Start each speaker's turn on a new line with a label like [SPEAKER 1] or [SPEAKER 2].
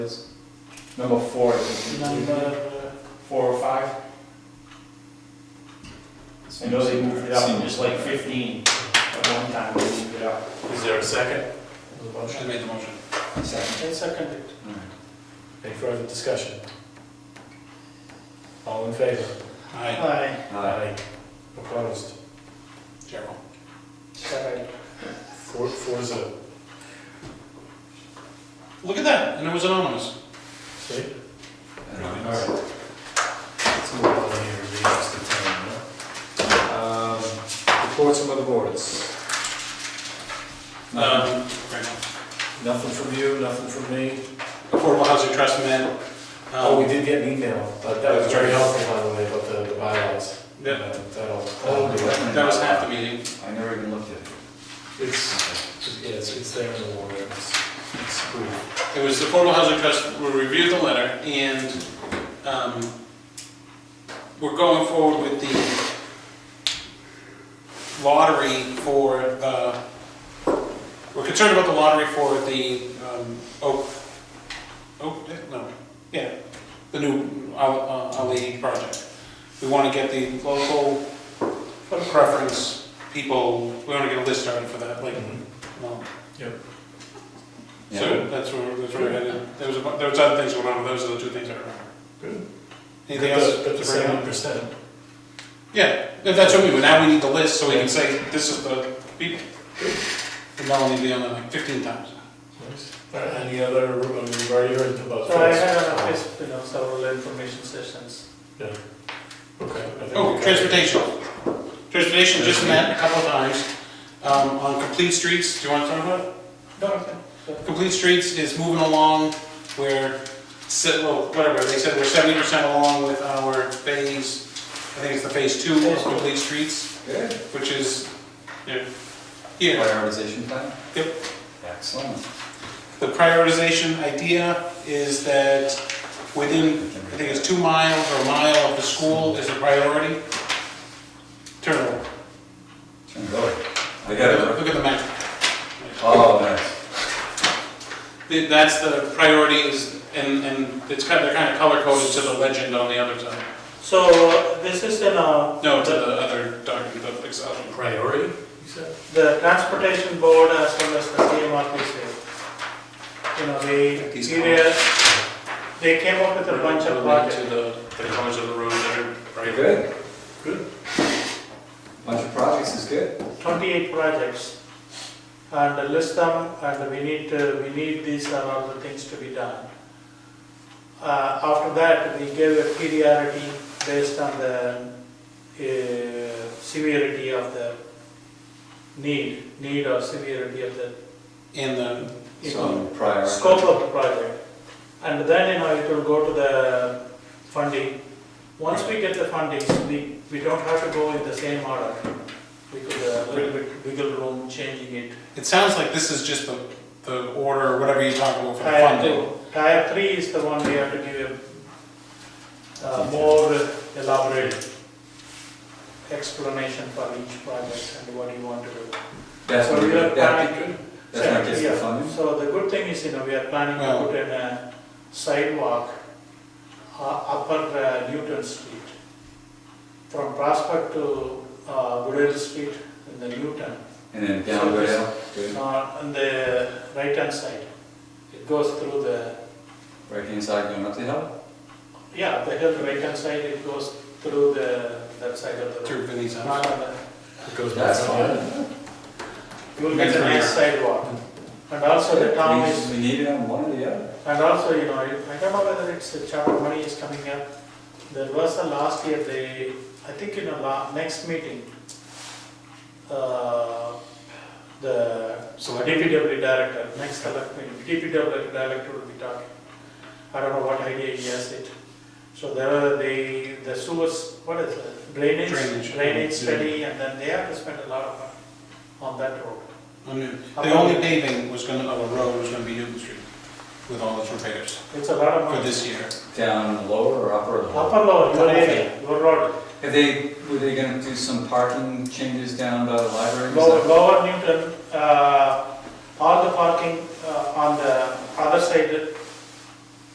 [SPEAKER 1] is number four, I think.
[SPEAKER 2] Number,
[SPEAKER 1] Four or five? I know they moved it up, it was like fifteen at one time, they moved it up.
[SPEAKER 3] Is there a second?
[SPEAKER 2] motion,
[SPEAKER 3] made the motion.
[SPEAKER 2] and seconded.
[SPEAKER 3] Any further discussion? All in favor? Aye.
[SPEAKER 2] Aye.
[SPEAKER 4] Uh,
[SPEAKER 3] Aye. Opposed? General.
[SPEAKER 2] Sorry.
[SPEAKER 3] Four, four zero.
[SPEAKER 5] Look at that, and it was anonymous.
[SPEAKER 3] See? All right. Let's move on here, read us the town, huh? Um, Reports from other boards.
[SPEAKER 5] Um, right now.
[SPEAKER 3] Nothing from you, nothing from me.
[SPEAKER 5] Affordable Housing Trust met.
[SPEAKER 3] Oh, we
[SPEAKER 5] um,
[SPEAKER 3] did get an email, but that was very helpful, by the way, about the- the bylaws.
[SPEAKER 5] Yeah.
[SPEAKER 3] Uh, That'll, that'll do it.
[SPEAKER 5] That was half the meeting.
[SPEAKER 4] I never even looked at it.
[SPEAKER 3] It's, yeah, it's, it's there in the warrant, it's, it's cool.
[SPEAKER 5] It was the Affordable Housing Trust, we reviewed the letter, and um, we're going forward with the lottery for, uh, we're concerned about the lottery for the um, Oak, Oak, no, yeah, the new Al- uh, Ali project. We want to get the local preference people, we want to get a list started for that, like, um,
[SPEAKER 4] Yeah.
[SPEAKER 5] so that's where, that's where I headed. There was, a bu- there was other things going on, but those are the two things I remember.
[SPEAKER 3] Good.
[SPEAKER 5] Anything else?
[SPEAKER 3] But the
[SPEAKER 5] to bring
[SPEAKER 3] seven
[SPEAKER 5] up?
[SPEAKER 3] percent,
[SPEAKER 5] Yeah, no, that's what we, do. now we need the list, so we can say, this is the people. And that'll only be on there like fifteen times.
[SPEAKER 3] Uh,
[SPEAKER 5] Oh,
[SPEAKER 3] any other, I mean, we've already heard about.
[SPEAKER 2] So Uh, I
[SPEAKER 3] this.
[SPEAKER 2] had an office, you know, several information sessions.
[SPEAKER 3] Okay. I think we
[SPEAKER 5] Oh,
[SPEAKER 3] got it.
[SPEAKER 5] transportation. Transportation just met a couple of times, um, on complete streets, do you want to talk about it?
[SPEAKER 2] No, okay.
[SPEAKER 5] Complete Streets is moving along, we're, se- well, whatever, they said we're seventy percent along with our phase, I think it's the phase two of Complete Streets,
[SPEAKER 4] Good.
[SPEAKER 5] which is, yeah, here,
[SPEAKER 4] Prioritization plan?
[SPEAKER 5] Yep.
[SPEAKER 4] Excellent.
[SPEAKER 5] the prioritization idea is that within, I think it's two miles or a mile of the school is a priority. Turn,
[SPEAKER 4] Turn it over. I got it.
[SPEAKER 5] look at the map.
[SPEAKER 4] Oh, nice.
[SPEAKER 5] Th- That's the priorities, and, and it's kind, they're kind of color coded to the legend on the other side,
[SPEAKER 2] So this is in, uh,
[SPEAKER 5] no, to the other document, the Excel.
[SPEAKER 3] Priority, you said?
[SPEAKER 2] the transportation board as well as the CMRPC. You know, they,
[SPEAKER 5] These
[SPEAKER 2] serious- they came up with a bunch of projects.
[SPEAKER 5] To the, the colors of the road that are
[SPEAKER 4] Very
[SPEAKER 5] right.
[SPEAKER 4] good.
[SPEAKER 3] Good.
[SPEAKER 4] Bunch of projects is good.
[SPEAKER 2] 28 projects and list them and we need to, we need these are all the things to be done. Uh, After that, we gave a priority based on the uh, severity of the need, need or severity of the
[SPEAKER 5] And the,
[SPEAKER 2] you know,
[SPEAKER 4] So prior.
[SPEAKER 2] scope of the project. And then, you know, it will go to the funding. Once we get the funding, we, we don't have to go in the same order. We could, uh, a little bit wiggle room changing it.
[SPEAKER 5] it sounds like this is just the, the order, or whatever you talk about for the
[SPEAKER 2] Tier
[SPEAKER 5] funding.
[SPEAKER 2] two, tier three is the one we have to give a uh, more elaborate explanation for each project and what you want to do.
[SPEAKER 4] That's
[SPEAKER 2] So
[SPEAKER 4] what
[SPEAKER 2] we are
[SPEAKER 4] we're, that,
[SPEAKER 2] planning-
[SPEAKER 4] that's not just the
[SPEAKER 2] Yeah.
[SPEAKER 4] funding.
[SPEAKER 2] So the good thing is, you know, we are planning
[SPEAKER 5] Well-
[SPEAKER 2] to put in a sidewalk, uh, upper uh, Newton Street, from Prospect to uh, Goodell Street in the Newton,
[SPEAKER 4] And then down the rail. Good.
[SPEAKER 2] uh, on the right-hand side. It goes through the,
[SPEAKER 4] Right hand side going up the hill.
[SPEAKER 2] yeah, the hill right-hand side, it goes through the, that side of the road.
[SPEAKER 5] Through Vinnie's house.
[SPEAKER 2] Not on the,
[SPEAKER 3] It goes back
[SPEAKER 4] That's
[SPEAKER 3] up,
[SPEAKER 4] fine.
[SPEAKER 2] you will get a nice sidewalk. And also the town is
[SPEAKER 4] We we need it on one or the other.
[SPEAKER 2] And also, you know, I I don't know whether it's the chapter money is coming up. There was a last year, they, I think in a la, next meeting, uh, the
[SPEAKER 5] Select,
[SPEAKER 2] DPW director, next select meeting, DPW director will be talking. I don't know what idea he has it. So there are the, the sewers, what is it, drainage,
[SPEAKER 5] Drainage.
[SPEAKER 2] drainage study, and then they have to spend a lot of money on that road.
[SPEAKER 5] I mean, the only paving was gonna, of a road was gonna be Newton Street with all its repairs
[SPEAKER 2] It's a lot of
[SPEAKER 5] for
[SPEAKER 2] money.
[SPEAKER 5] this year.
[SPEAKER 4] Down lower or upper or lower?
[SPEAKER 2] Upper lower, your area, your road.
[SPEAKER 4] Have they, were they gonna do some parking changes down by the library? and
[SPEAKER 2] Lower,
[SPEAKER 4] stuff?
[SPEAKER 2] lower Newton, uh, all the parking uh, on the other side,